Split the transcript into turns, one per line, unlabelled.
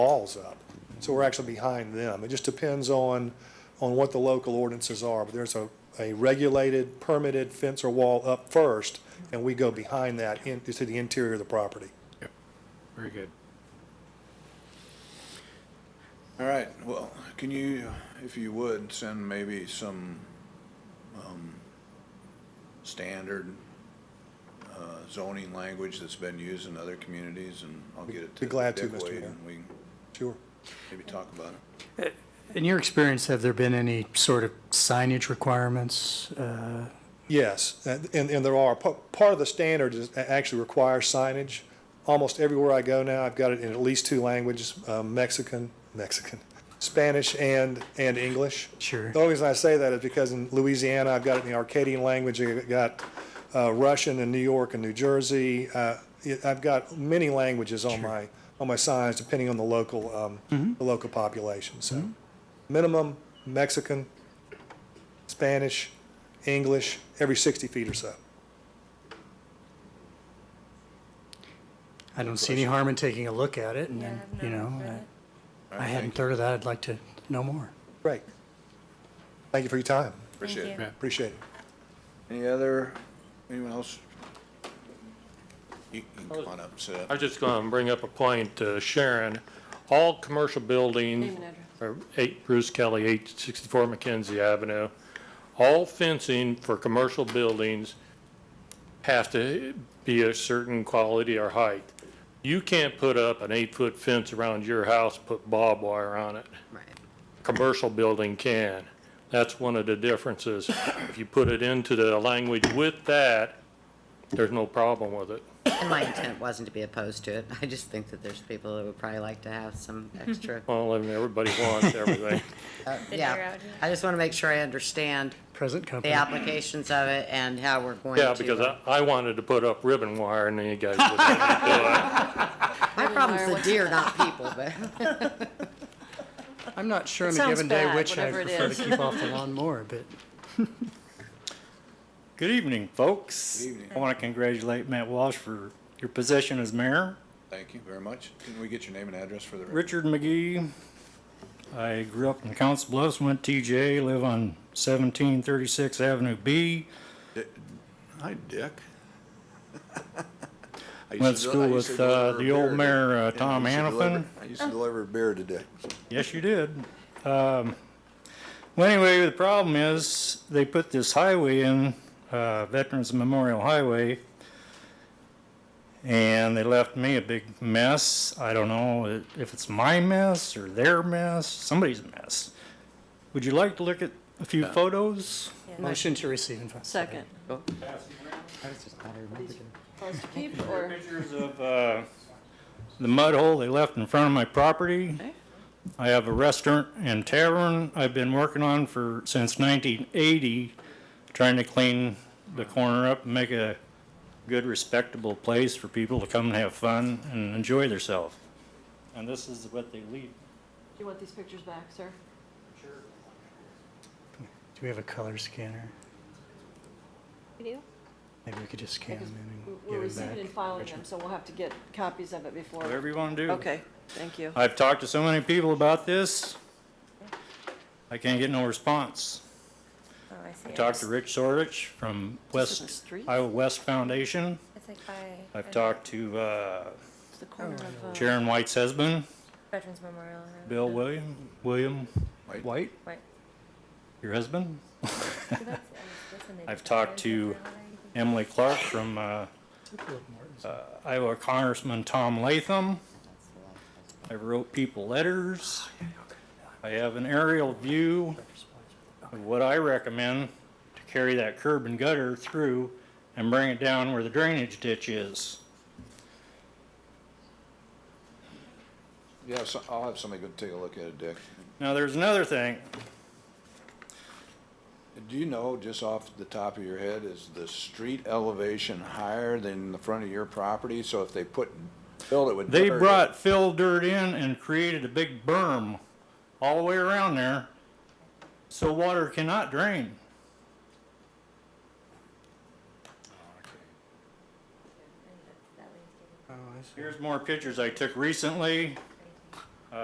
walls up. So we're actually behind them. It just depends on, on what the local ordinances are. But there's a, a regulated, permitted fence or wall up first, and we go behind that into the interior of the property.
Very good.
All right, well, can you, if you would, send maybe some, um, standard, uh, zoning language that's been used in other communities and I'll get it to
Be glad to,
Dick
Mr.
Wade
Mayor.
and we can
Sure.
maybe talk about it.
In your experience, have there been any sort of signage requirements? Uh,
Yes, and, and there are, pa- part of the standard is, actually requires signage. Almost everywhere I go now, I've got it in at least two languages, um, Mexican, Mexican, Spanish and, and English.
Sure.
The only reason I say that is because in Louisiana, I've got it in the Arcadian language, I've got uh, Russian in New York and New Jersey. Uh, it- I've got many languages on my, on my signs, depending on the local, um, the local population, so. Minimum Mexican, Spanish, English, every 60 feet or so.
I don't see any harm in taking a look at it and
Yeah,
then,
I've
you
not
know, uh,
All
read
I
right,
I
thank
hadn't
you.
heard of that. I'd like to know more.
Great. Thank you for your time.
Appreciate
Thank
it.
you.
Appreciate it.
Any other, anyone else? You can come on up, sit
I
up.
was just going to bring up a point to Sharon. All commercial buildings, or eight Bruce Kelly, eight sixty-four McKenzie Avenue, all fencing for commercial buildings have to be a certain quality or height. You can't put up an eight-foot fence around your house, put barbed wire on it. Right. Commercial building can. That's one of the differences. If you put it into the language with that, there's no problem with it.
And my intent wasn't to be opposed to it. I just think that there's people that would probably like to have some extra.
Well, I mean, everybody wants everything.
uh,
That they're
Yeah,
out here.
I just want to make sure I understand
Present
the
company.
applications of it and how we're going to.
Yeah, because I,
uh,
I wanted to put up ribbon wire and then you guys wouldn't let me
My problem's the deer, not people, but
I'm not sure
It
on a
sounds
given day
bad,
which I
whatever it
prefer
is.
to keep off the lawnmower, but
Good evening, folks.
Good evening.
I want to congratulate Matt Walsh for your position as mayor.
Thank you very much. Can we get your name and address for the record?
Richard McGee. I grew up in Council Bluffs, went to TJ, live on 1736 Avenue B.
Hi, Dick. I used
Went to
del-
school
I used to
with, uh,
deliver
the
beer
old
to-
mayor, uh,
yeah, I
Tom
used to deliver-
Hanifin.
I used to deliver beer to Dick.
Yes, you did. Um, well, anyway, the problem is they put this highway in, uh, Veterans Memorial Highway, and they left me a big mess. I don't know if it's my mess or their mess, somebody's mess. Would you like to look at a few photos?
motion to receive and file.
Second. Supposed to keep or?
Pictures of uh, the mud hole they left in front of my property.
Okay.
I have a restaurant and tavern I've been working on for, since 1980, trying to clean the corner up and make a good respectable place for people to come and have fun and enjoy themselves. And this is what they leave.
Do you want these pictures back, sir?
Do we have a color scanner?
You do?
Maybe we could just scan
Because
them in
we're
and give
receiving
them
and filing them, so we'll have to get copies of it before.
Whatever you want to do.
Okay, thank you.
I've talked to so many people about this. I can't get no response.
Oh, I see.
Talked to Rich Sorich from
This isn't
West,
streets.
Iowa West Foundation.
It's like by.
I've talked to uh,
It's the corner of, uh,
Sharon White's husband,
Veterans Memorial. and-
Bill William, William
White.
White,
Right.
your husband.
So that's- I mean, that's when they
I've
do
talked
the
to
Veterans Memorial, I think.
Emily Clark from uh,
back.
uh, Iowa Congressman Tom Latham. I wrote people letters. I have an aerial view of what I recommend to carry that curb and gutter through and bring it down where the drainage ditch is.
Yeah, so I'll have somebody go take a look at it, Dick.
Now, there's another thing.
Do you know, just off the top of your head, is the street elevation higher than the front of your property? So if they put, filled it with
They
dirt,
brought fill dirt in and created a big berm all the way around there, so water cannot drain.
And that's- that way it's getting-
Here's more pictures I took recently.